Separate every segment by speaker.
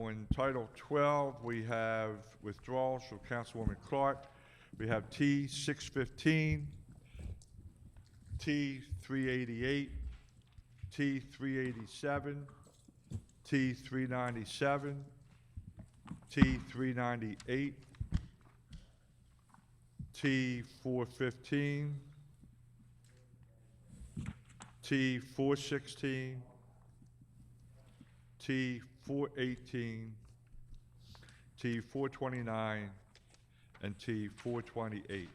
Speaker 1: on Title 12, we have withdrawals from Councilwoman Clark. We have T 615, T 388, T 387, T 397, T 398, T 415, T 416, T 418, T 429, and T 428.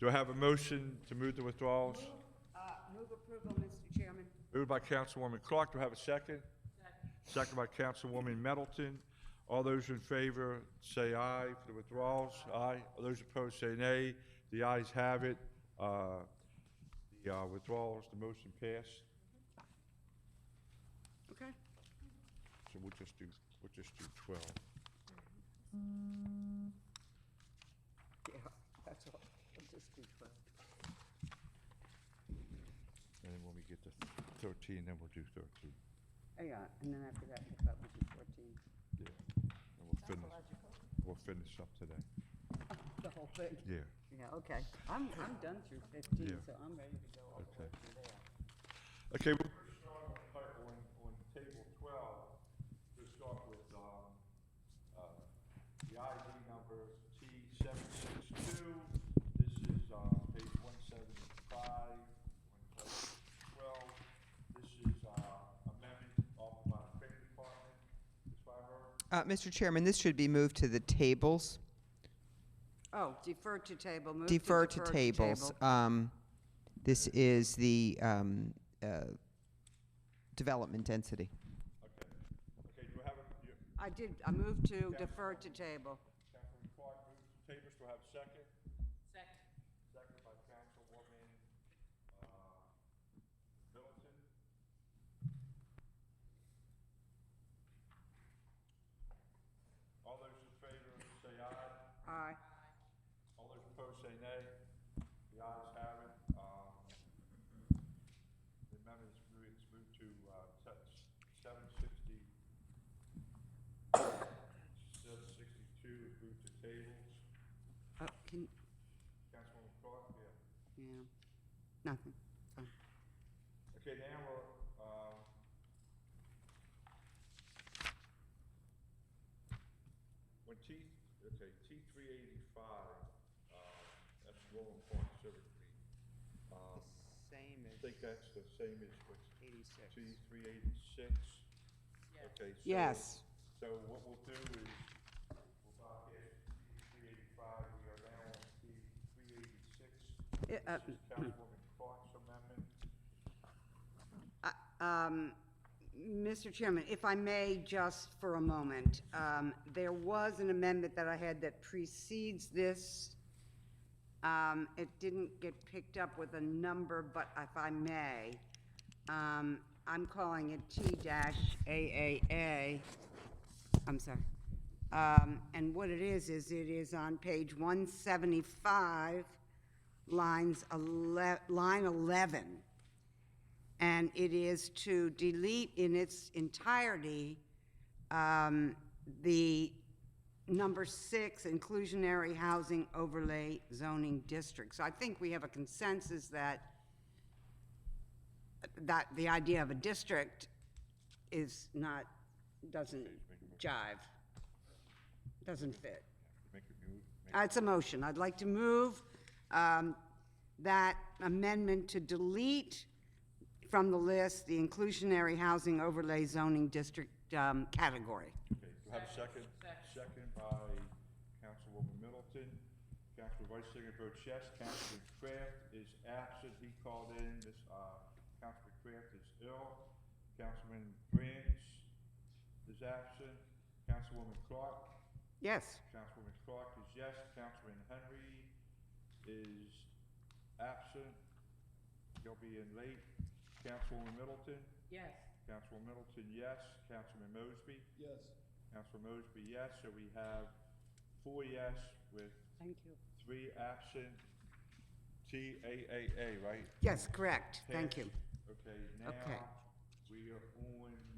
Speaker 1: Do I have a motion to move the withdrawals?
Speaker 2: Uh, Move approval, Mr. Chairman.
Speaker 1: Moved by Councilwoman Clark, do I have a second? Second by Councilwoman Middleton. All those in favor, say aye for the withdrawals. Aye. All those opposed, say nay. The ayes have it. Uh, The uh, withdrawals, the motion passed.
Speaker 2: Okay.
Speaker 1: So we'll just do, we'll just do 12.
Speaker 2: Yeah, that's all. I'll just uh, do 12.
Speaker 1: And then when we get to 13, then we'll do 13.
Speaker 2: Hang on, and then after that, we'll probably do 14.
Speaker 1: Yeah. And we'll finish, we'll finish up today.
Speaker 2: The whole thing.
Speaker 1: Yeah,
Speaker 2: Yeah, okay. I'm, I'm done through 15,
Speaker 1: Yeah.
Speaker 2: so I'm ready to go all the way
Speaker 1: Okay.
Speaker 2: through there.
Speaker 1: okay. we're starting on part- On, on table 12, we'll start with, um, uh, the ID number T762. This is, um, page 175, on table 12. This is, uh, amendment offered by the Fire Department, Ms. Fryberg.
Speaker 3: Uh, Mr. Chairman, this should be moved to the tables.
Speaker 2: Oh, defer to table, move to
Speaker 3: Defer to tables. Um, This is the um, uh, development density.
Speaker 1: Okay, okay, do I have a, you-
Speaker 2: I did, I moved to defer to table.
Speaker 1: Councilwoman Clark moves to table, do I have a second? Second. Second by Councilwoman, uh, Middleton. All those in favor say aye,
Speaker 2: Aye.
Speaker 1: all those opposed say nay. The ayes have it, um, the amendment is moved, it's moved to, uh, seven sixty, seven sixty-two is moved to tables.
Speaker 2: Oh, can,
Speaker 1: Councilwoman Clark, yeah.
Speaker 2: yeah, nothing. Fine.
Speaker 1: Okay, now we're, um, when T, okay, T three eighty-five, uh, that's Rolling Park Sugar Creek. Um,
Speaker 3: Same
Speaker 1: I think that's the same as what's T
Speaker 3: 86.
Speaker 1: three eighty-six? Okay, so.
Speaker 2: Yes.
Speaker 1: So what we'll do is, we'll bypass T three eighty-five, we are now on T three eighty-six.
Speaker 2: Yeah, uh,
Speaker 1: This is Councilwoman Clark's amendment.
Speaker 2: I- um, Mr. Chairman, if I may, just for a moment, um, there was an amendment that I had that precedes this. Um, It didn't get picked up with a number, but if I may, um, I'm calling it T-AAA. I'm sorry. Um, And what it is, is it is on page 175, lines, ele- line 11 and it is to delete in its entirety um, the number six inclusionary housing overlay zoning district. So I think we have a consensus that, that the idea of a district is not, doesn't jive, doesn't fit.
Speaker 1: Make it move,
Speaker 2: Uh, It's a motion. I'd like to move um, that amendment to delete from the list the inclusionary housing overlay zoning district um, category.
Speaker 1: okay, do I have a second? Second by Councilwoman Middleton. Council Vice Singer votes yes, Councilman Craft is absent, he called in, this, uh, Councilman Craft is ill. Councilman Branch is absent, Councilwoman Clark,
Speaker 2: Yes,
Speaker 1: Councilwoman Clark is yes, Councilman Henry is absent, he'll be in late. Councilwoman Middleton,
Speaker 4: Yes.
Speaker 1: Councilwoman Middleton, yes, Councilman Mosby.
Speaker 5: Yes.
Speaker 1: Councilor Mosby, yes, so we have four yes with
Speaker 2: thank you.
Speaker 1: three absent. TAAA, right?
Speaker 2: Yes, correct. Thank you.
Speaker 1: Passed. Okay,
Speaker 2: Okay.
Speaker 1: now, we are on